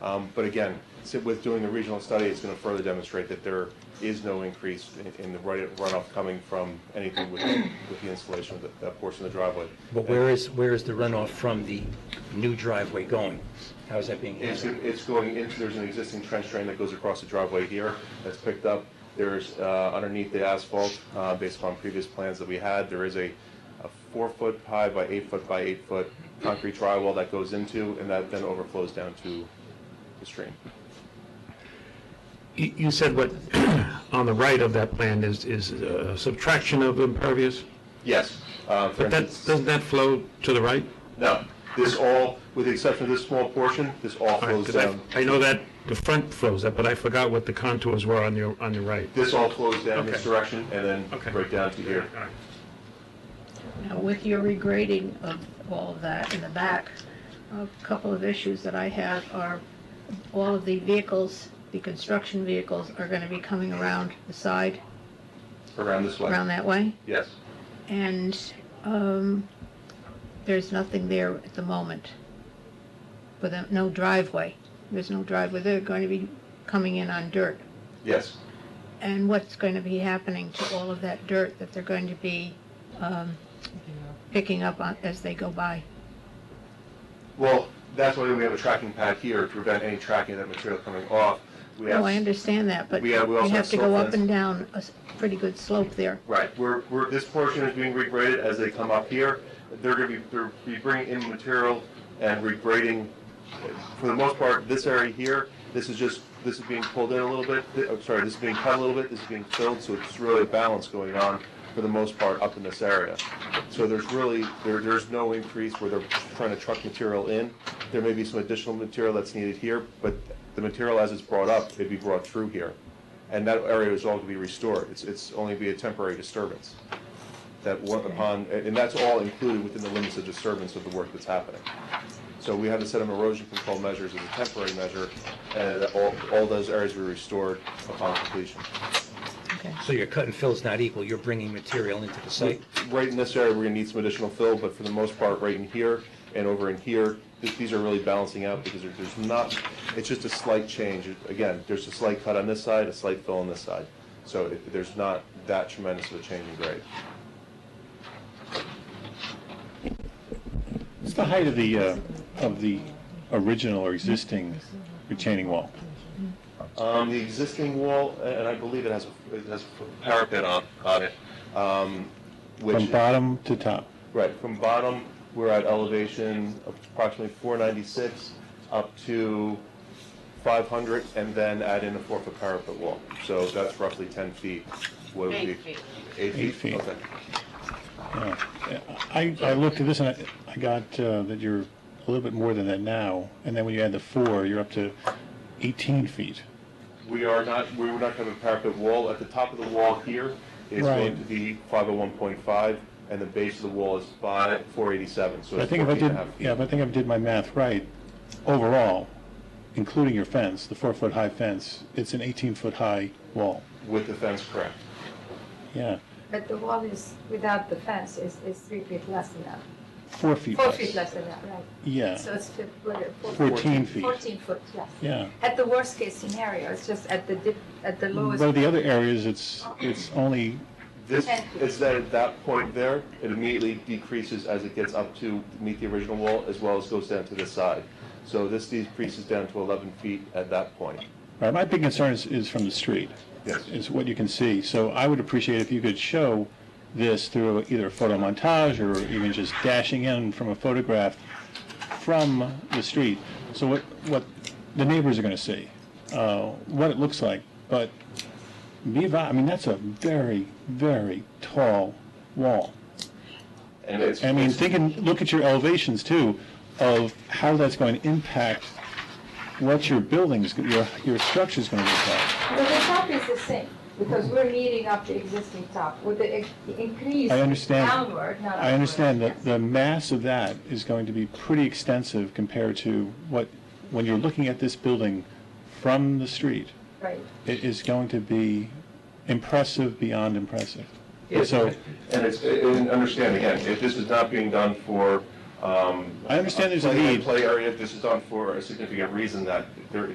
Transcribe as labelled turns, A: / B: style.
A: Um, But again, so with doing the regional study, it's going to further demonstrate that there is no increase in- in the run- runoff coming from anything with, with the installation of that- that portion of the driveway.
B: But where is, where is the runoff from the new driveway going? How is that being
A: It's,
B: handled?
A: it's going into, there's an existing trench drain that goes across the driveway here that's picked up. There's uh, underneath the asphalt, uh, based upon previous plans that we had, there is a a four-foot high by eight-foot by eight-foot concrete drywall that goes into, and that then overflows down to the stream.
C: You you said what, on the right of that plan is, is uh, subtraction of impervious?
A: Yes. uh, for
C: But that,
A: instance-
C: doesn't that flow to the right?
A: No, this all, with the exception of this small portion, this all
C: All right,
A: flows
C: 'cause I-
A: down,
C: I know that the front flows up, but I forgot what the contours were on your, on your right.
A: this all flows down this
C: Okay.
A: direction and then
C: Okay.
A: right down to here.
C: All right.
D: Now, with your regrading of all of that in the back, a couple of issues that I have are all of the vehicles, the construction vehicles are going to be coming around the side,
A: Around this way,
D: around that way.
A: yes.
D: And um, there's nothing there at the moment. With a- no driveway. There's no driveway. They're going to be coming in on dirt.
A: Yes,
D: And what's going to be happening to all of that dirt that they're going to be um, picking up on- as they go by?
A: well, that's why we have a tracking pad here to prevent any tracking of that material coming off. We have-
D: Oh, I understand that, but
A: We
D: we
A: have- we also have
D: have to go
A: slope
D: up
A: lines.
D: and down a s- pretty good slope there.
A: Right, we're, we're, this portion is being regraded as they come up here. They're gonna be, they're be bringing in material and regrading, for the most part, this area here, this is just, this is being pulled in a little bit, Th- I'm sorry, this is being cut a little bit, this is being filled, so it's really a balance going on for the most part up in this area. So there's really, there, there's no increase where they're trying to truck material in. There may be some additional material that's needed here, but the material as it's brought up, it'd be brought through here. And that area is all to be restored. It's, it's only be a temporary disturbance. That work upon, and that's all included within the limits of disturbance of the work that's happening. So we have a set of erosion control measures as a temporary measure, and that all, all those areas were restored upon completion.
D: Okay.
B: So your cut and fill's not equal, you're bringing material into the site?
A: Right in this area, we're gonna need some additional fill, but for the most part, right in here and over in here, th- these are really balancing out because there- there's not, it's just a slight change. Again, there's a slight cut on this side, a slight fill on this side. So it- there's not that tremendous of a change in grade.
E: What's the height of the, uh, of the original or existing retaining wall?
A: Um, the existing wall, a- and I believe it has, a- it has a parapet on, on it, um,
E: From
A: which,
E: bottom to top?
A: right, from bottom, we're at elevation approximately four ninety-six up to five hundred, and then add in a four-foot parapet wall. So that's roughly ten feet. What would be-
F: Eight feet.
A: Eight
E: Eight
A: feet,
E: feet.
A: okay.
E: Yeah. I, I looked at this and I, I got uh, that you're a little bit more than that now, and then when you add the four, you're up to 18 feet.
A: We are not, we were not having a parapet wall. At the top of the wall here is going
E: Right.
A: to be five oh one point five, and the base of the wall is five, four eighty-seven, so
E: But I
A: it's
E: think if
A: fourteen
E: I
A: and a
E: did,
A: half. feet.
E: yeah, but I think if I did my math right, overall, including your fence, the four-foot-high fence, it's an 18-foot-high wall.
A: With the fence, correct.
E: Yeah,
G: But the wall is, without the fence, is, is three feet less than that.
E: four feet
G: Four
E: less.
G: feet less than that, right?
E: Yeah,
G: So it's fif- what, uh, four-
E: 14 feet.
G: Fourteen foot less.
E: Yeah.
G: At the worst case scenario, it's just at the dip, at the lowest.
E: But the other areas, it's, it's only
A: This,
G: Ten feet.
A: is that at that point there, it immediately decreases as it gets up to meet the original wall, as well as goes down to this side. So this decreases down to 11 feet at that point.
E: Right, my big concern is, is from the street.
A: Yes.
E: Is what you can see. So I would appreciate if you could show this through either a photo montage or even just dashing in from a photograph from the street. So what, what the neighbors are gonna see, uh, what it looks like. But be advised, I mean, that's a very, very tall wall.
A: And it's,
E: I mean, think and look at your elevations too, of how that's going to impact what your buildings, your, your structure's gonna look like.
G: But the top is the same, because we're meeting up the existing top with the ex- the increase
E: I understand.
G: downward, not upward.
E: I understand that
G: Yes.
E: the mass of that is going to be pretty extensive compared to what, when you're looking at this building from the street,
G: Right.
E: it is going to be impressive beyond impressive.
B: Yes.
E: So,
A: and it's, and understand again, if this is not being done for Um,
E: I understand there's a
A: play-
E: need.
A: Play area, this is done for a significant reason that there